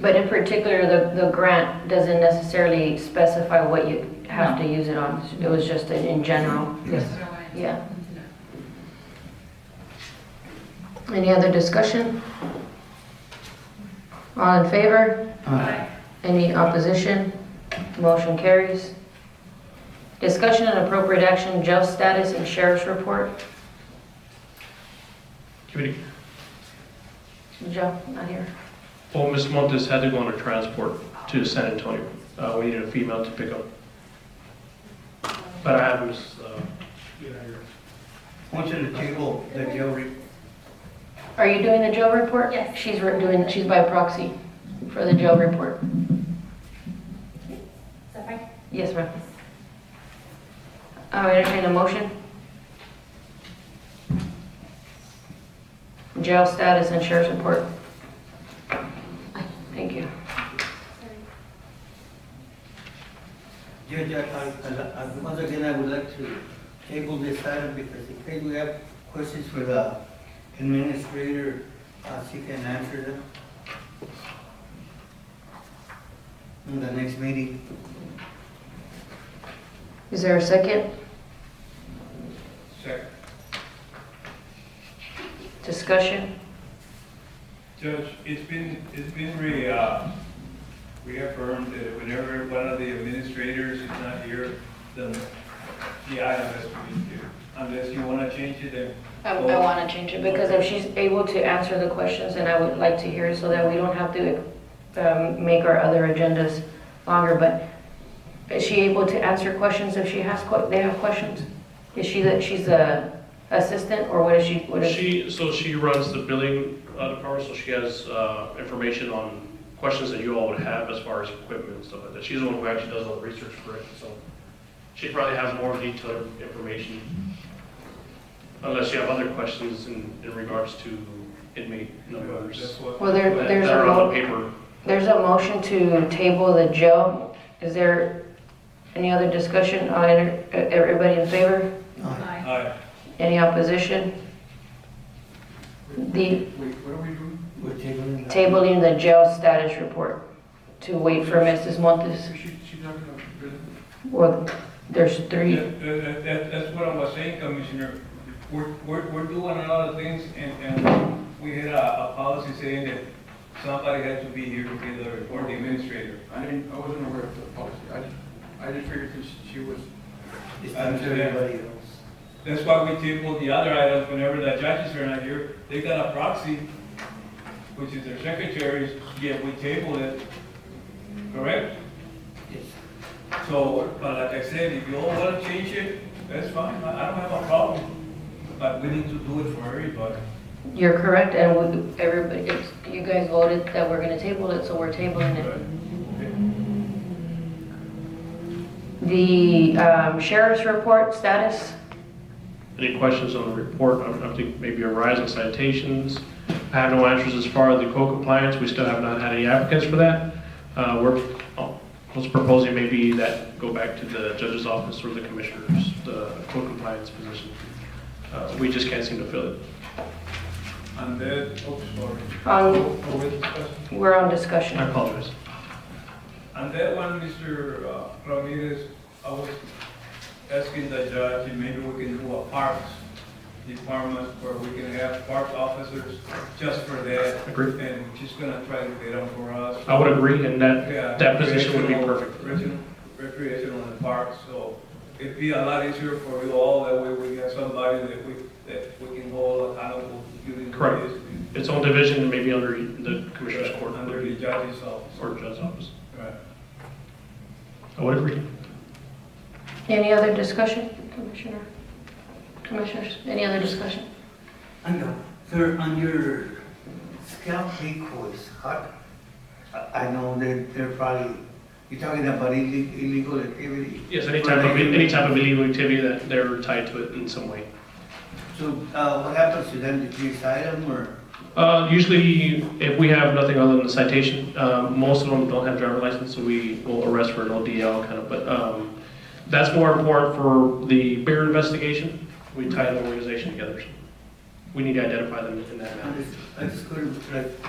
But in particular, the, the grant doesn't necessarily specify what you have to use it on. It was just in in general. That's what I wanted to Yeah. know. Any other discussion? All in favor? Aye. Any opposition? Motion carries. Discussion and appropriate action, jail status and sheriff's report. Committee, Joe, not here. well, Ms. Montes had to go on a transport to San Antonio. Uh, we needed a female to pick up. But I have Ms., uh, you know, your- I want you to table the jail re- Are you doing the jail report? Yes. She's re- doing, she's by proxy for the jail report. So if I can- Yes, ma'am. I'll entertain a motion. Jail status and sheriff's report. Thank you. Judge, I- I- I- once again, I would like to table this item because in case we have questions for the administrator, uh, she can answer them in the next meeting. Is there a second? Second. Discussion? Judge, it's been, it's been re, uh, reaffirmed that whenever one of the administrators is not here, then the item has to be here. Unless you want to change it, then I, I want to change it because if she's able to answer the questions, then I would like to hear so that we don't have to um, make our other agendas longer. But is she able to answer questions if she has, que- they have questions? Is she that, she's a assistant or what is she, what is? She, so she runs the billing uh, department, so she has uh, information on questions that you all would have as far as equipment and stuff like that. She's the one who actually does all the research for it, so she probably has more detailed information. Unless you have other questions in, in regards to inmate that's numbers what. Well, there- what- there's that a are on lot- the paper. There's a motion to table the jail. Is there any other discussion? I'll enter- uh, Everybody in favor? Uh, Aye. Aye. Any opposition? The Wait, what are we doing? We're tabling the. tabling the jail status report to wait for Mrs. Montes. She, she's not gonna. Well, there's three. That, that- that, that's what I was saying, Commissioner. We're, we're, we're doing a lot of things and, and we had a, a policy saying that somebody had to be here to get the report, the administrator. I didn't, I wasn't aware of the policy. I, I just figured since she was, It's time to everybody else. That's why we tabled the other items whenever the judges are not here. They got a proxy, which is their secretaries, yet we tabled it, correct? Yes. So, but like I said, if you all want to change it, that's fine, I I don't have a problem. But we need to do it for everybody. You're correct, and we- everybody, it's- you guys voted that we're going to table it, so we're tabling it. The um, sheriff's report status, Any questions on the report? I I think maybe a rise in citations. I have no answers as far as the code compliance. We still have not had any applicants for that. Uh, We're, oh, I was proposing maybe that go back to the judge's office or the commissioners, the code compliance position. Uh, We just can't seem to fill it. And then, oh, sorry. Um, Oh, Are we discussing? we're on discussion. I apologize. On that one, Mr. Ramirez, I was asking the judge, if maybe we can do a parks department where we can have park officers just for that, Agree. and she's gonna try to get them for us. I would agree, and that, Yeah, Oh, that position would be recreational- perfect. recreational- Recreational in the park, so it'd be a lot easier for you all, that way we have somebody that we, that we can hold accountable. during Correct. this. Its own division, maybe under the commissioner's court uh, Under the judge's office. or judge's office. Right. I would agree. Any other discussion, Commissioner? Commissioners, any other discussion? On your, uh, sir, on your scalp decoys, how, I, I know that they're probably, you're talking about ille- illegal activity. Yes, any type of, any type of illegal activity that they're tied to it in some way. So, uh, what happens to them, did you cite them, or? Uh, usually, if we have nothing other than a citation, uh, most of them don't have driver license, so we will arrest for an ODL kind of, but, um, that's more important for the bigger investigation. We tie the organization together. so We need to identify them in that manner. I just, I just couldn't, like,